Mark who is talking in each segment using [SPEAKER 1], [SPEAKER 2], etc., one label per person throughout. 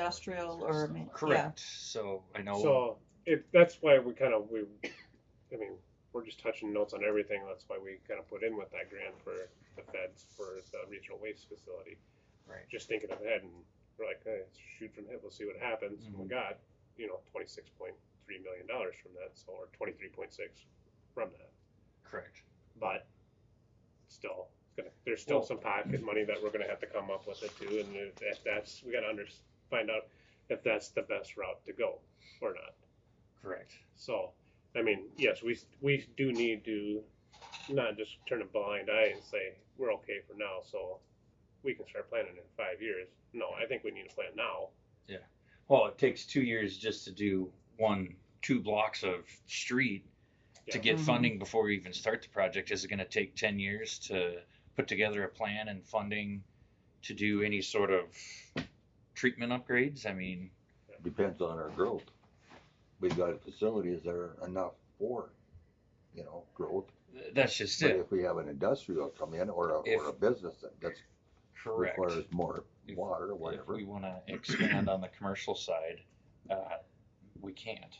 [SPEAKER 1] industrial or, ma- yeah.
[SPEAKER 2] Correct. So I know.
[SPEAKER 3] So it, that's why we kind of we, I mean, we're just touching notes on everything. That's why we kind of put in with that grant for the feds for the regional waste facility.
[SPEAKER 2] Right.
[SPEAKER 3] Just thinking ahead, and we're like, hey, let's shoot from hip. Let's see what happens. And We
[SPEAKER 2] Mm-hmm.
[SPEAKER 3] got, you know, twenty six point three million dollars from that, so or twenty three point six from that.
[SPEAKER 2] Correct.
[SPEAKER 3] But still, it's gonna, there's still
[SPEAKER 2] Well-
[SPEAKER 3] some pocket money that we're gonna have to come up with it too. And if, if that's, we gotta under, find out if that's the best route to go or not.
[SPEAKER 2] Correct.
[SPEAKER 3] So, I mean, yes, we we do need to not just turn a blind eye and say we're okay for now, so we can start planning in five years. No, I think we need to plan now.
[SPEAKER 2] Well, it takes two years just to do one, two blocks of street to
[SPEAKER 3] Yeah.
[SPEAKER 2] get
[SPEAKER 1] Mhm.
[SPEAKER 2] funding before we even start the project. Is it going to take 10 years to put together a plan and funding to do any sort of treatment upgrades? I mean,
[SPEAKER 4] Depends on our growth. We've got facilities that are enough for, you know, growth.
[SPEAKER 2] th- that's just
[SPEAKER 4] But
[SPEAKER 2] it.
[SPEAKER 4] if we have an industrial come in or a, or a
[SPEAKER 2] If-
[SPEAKER 4] business that that's
[SPEAKER 2] Correct.
[SPEAKER 4] requires more
[SPEAKER 2] If-
[SPEAKER 4] water or
[SPEAKER 2] If
[SPEAKER 4] whatever.
[SPEAKER 2] we want to expand on the commercial side, uh, we can't.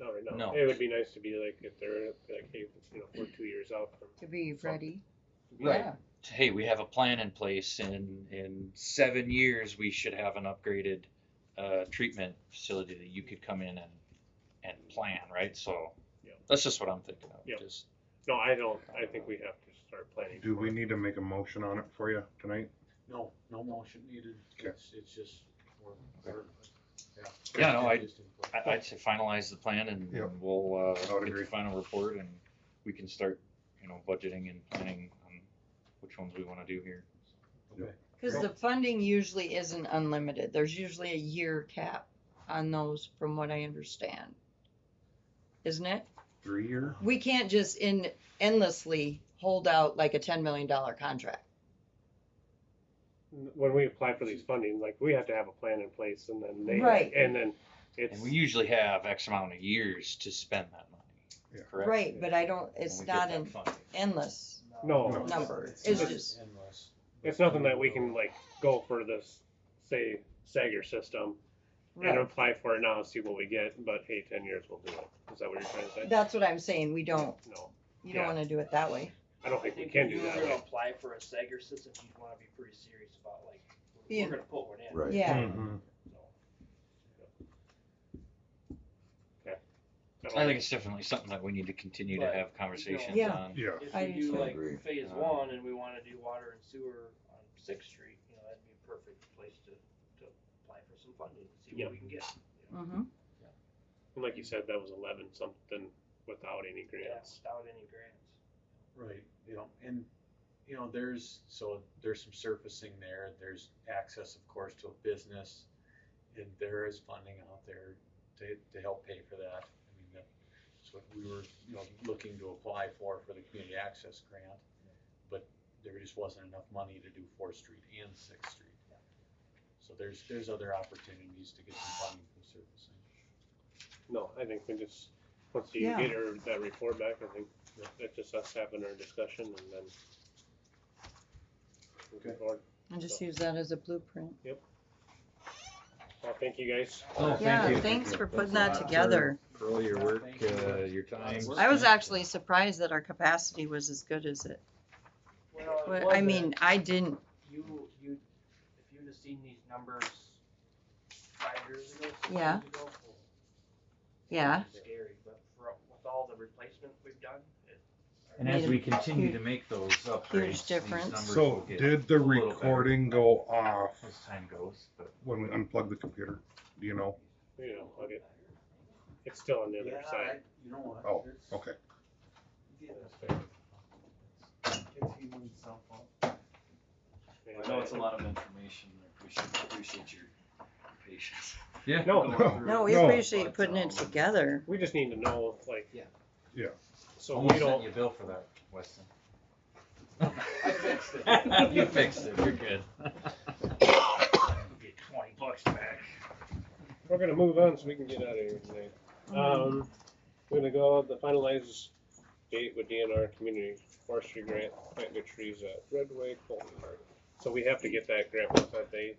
[SPEAKER 3] Not right now.
[SPEAKER 2] No.
[SPEAKER 3] It would be nice to be like if they're like, hey, you know, we're two years out from
[SPEAKER 1] To be ready.
[SPEAKER 2] Right.
[SPEAKER 1] Yeah.
[SPEAKER 2] hey, we have a plan in place, and in seven years we should have an upgraded uh, treatment facility that you could come in and and plan, right? So
[SPEAKER 3] Yeah.
[SPEAKER 2] that's just what I'm thinking of.
[SPEAKER 3] Yeah.
[SPEAKER 2] Just
[SPEAKER 3] No, I don't I think we have to start planning.
[SPEAKER 5] Do
[SPEAKER 3] for
[SPEAKER 5] we
[SPEAKER 3] it.
[SPEAKER 5] need to make a motion on it for you tonight?
[SPEAKER 6] No, no motion needed.
[SPEAKER 5] Okay.
[SPEAKER 6] It's, it's just, we're, we're, yeah.
[SPEAKER 2] Yeah, no, I-
[SPEAKER 6] Just input.
[SPEAKER 2] I, I'd say finalize the plan, and
[SPEAKER 5] Yeah.
[SPEAKER 2] we'll uh,
[SPEAKER 5] would
[SPEAKER 2] get
[SPEAKER 5] agree.
[SPEAKER 2] the final report, and we can start, you know, budgeting and planning on which ones we want to do here.
[SPEAKER 6] Okay.
[SPEAKER 1] Because the funding usually isn't unlimited. There's usually a year cap on those, from what I understand. Isn't it?
[SPEAKER 5] Three year?
[SPEAKER 1] We can't just in endlessly hold out like a $10 million contract.
[SPEAKER 3] when we apply for these funding, like we have to have a plan in place and then they
[SPEAKER 1] Right.
[SPEAKER 3] and then it's
[SPEAKER 2] And we usually have X amount of years to spend that money.
[SPEAKER 5] Yeah.
[SPEAKER 2] Correct.
[SPEAKER 1] Right, but I don't,
[SPEAKER 2] When
[SPEAKER 1] it's
[SPEAKER 2] we get
[SPEAKER 1] not
[SPEAKER 2] that
[SPEAKER 1] an
[SPEAKER 2] funding.
[SPEAKER 1] endless.
[SPEAKER 3] No.
[SPEAKER 5] No.
[SPEAKER 1] Number.
[SPEAKER 3] It's
[SPEAKER 6] not
[SPEAKER 1] just-
[SPEAKER 6] endless.
[SPEAKER 3] it's nothing that we can like go for this say Sager system and
[SPEAKER 1] Right.
[SPEAKER 3] apply for it now and see what we get. But hey, ten years we'll do it. Is that what you're trying to say?
[SPEAKER 1] That's what I'm saying. We don't,
[SPEAKER 3] No,
[SPEAKER 1] you don't
[SPEAKER 3] Yeah.
[SPEAKER 1] want to do it that way.
[SPEAKER 3] I don't think we can do that.
[SPEAKER 7] If you were gonna
[SPEAKER 3] way.
[SPEAKER 7] apply for a Sager system, you'd wanna be pretty serious about like,
[SPEAKER 1] Yeah.
[SPEAKER 7] we're gonna put one in.
[SPEAKER 4] Right.
[SPEAKER 1] Yeah.
[SPEAKER 5] Mhm.
[SPEAKER 7] So,
[SPEAKER 3] don't
[SPEAKER 2] I think it's definitely something that we need to continue to
[SPEAKER 7] But,
[SPEAKER 2] have conversations
[SPEAKER 1] Yeah.
[SPEAKER 2] on.
[SPEAKER 5] Yeah,
[SPEAKER 1] I
[SPEAKER 7] If we do
[SPEAKER 4] understand.
[SPEAKER 7] like
[SPEAKER 4] Agree.
[SPEAKER 7] phase
[SPEAKER 2] Uh,
[SPEAKER 7] one and we wanna do water and sewer on Sixth Street, you know, that'd be a perfect place to, to apply for some funding, see
[SPEAKER 3] Yeah.
[SPEAKER 7] what we can get.
[SPEAKER 1] Mm-hmm.
[SPEAKER 3] And like you said, that was eleven something without any
[SPEAKER 7] Yeah,
[SPEAKER 3] grants.
[SPEAKER 7] Without any grants.
[SPEAKER 6] Right, you know, and, you know, there's, so there's some surfacing there, there's access, of course, to a business. And there is funding out there to, to help pay for that. I mean, that's what we were, you know, looking to apply for, for the community access grant. But there just wasn't enough money to do Fourth Street and Sixth Street. So there's, there's other opportunities to get some funding from surfacing.
[SPEAKER 3] No, I think we just once you
[SPEAKER 1] Yeah.
[SPEAKER 3] get her that report back, I think that's just us having our discussion and then. moving
[SPEAKER 6] Okay.
[SPEAKER 3] forward.
[SPEAKER 1] And just use that as a blueprint.
[SPEAKER 3] Well, thank you guys.
[SPEAKER 2] Oh,
[SPEAKER 1] Yeah,
[SPEAKER 5] you.
[SPEAKER 1] thanks for
[SPEAKER 5] Thanks
[SPEAKER 1] putting
[SPEAKER 5] a
[SPEAKER 1] that
[SPEAKER 5] lot.
[SPEAKER 1] together.
[SPEAKER 2] for all your work,
[SPEAKER 6] Thank you.
[SPEAKER 2] uh, your time.
[SPEAKER 6] Work.
[SPEAKER 1] I was
[SPEAKER 2] spent.
[SPEAKER 1] actually surprised that our capacity was as good as it.
[SPEAKER 7] Well, it
[SPEAKER 1] Well, I
[SPEAKER 7] wasn't.
[SPEAKER 1] mean, I didn't,
[SPEAKER 7] You, you, if you'd have seen these numbers five years ago, six
[SPEAKER 1] Yeah.
[SPEAKER 7] years ago, oh,
[SPEAKER 1] yeah.
[SPEAKER 7] it's Scary, but for, with all the replacement we've done, it.
[SPEAKER 2] And as we continue to make those upgrades, these
[SPEAKER 1] difference.
[SPEAKER 2] numbers will
[SPEAKER 5] so
[SPEAKER 2] get
[SPEAKER 5] did the
[SPEAKER 2] a little better
[SPEAKER 5] recording go off
[SPEAKER 2] as time goes, but
[SPEAKER 5] when we unplugged the computer? Do you know?
[SPEAKER 3] You know, I'll get- it's still on the
[SPEAKER 6] Yeah,
[SPEAKER 3] other
[SPEAKER 6] I-
[SPEAKER 3] side.
[SPEAKER 6] You know what?
[SPEAKER 5] Oh,
[SPEAKER 6] there's-
[SPEAKER 5] Okay.
[SPEAKER 6] yeah, that's fair. If you need something.
[SPEAKER 7] I know it's a lot of information, I appreciate, appreciate your patience.
[SPEAKER 2] yeah,
[SPEAKER 3] No,
[SPEAKER 1] No, we
[SPEAKER 5] No,
[SPEAKER 1] appreciate
[SPEAKER 7] but,
[SPEAKER 1] putting it
[SPEAKER 7] um,
[SPEAKER 1] together.
[SPEAKER 3] We just need to know like.
[SPEAKER 7] Yeah.
[SPEAKER 5] Yeah.
[SPEAKER 3] So
[SPEAKER 2] almost
[SPEAKER 3] we
[SPEAKER 2] sent
[SPEAKER 3] don't.
[SPEAKER 2] you a bill for that, Weston.
[SPEAKER 7] I fixed it.
[SPEAKER 2] you fixed it. You're good.
[SPEAKER 7] Get twenty bucks back.
[SPEAKER 3] We're gonna move on so we can get out of here tonight. Um, we're gonna go the finalized date with DNR Community Forestry Grant, plant new trees at Redway Colton Park. So we have to get that grant once that they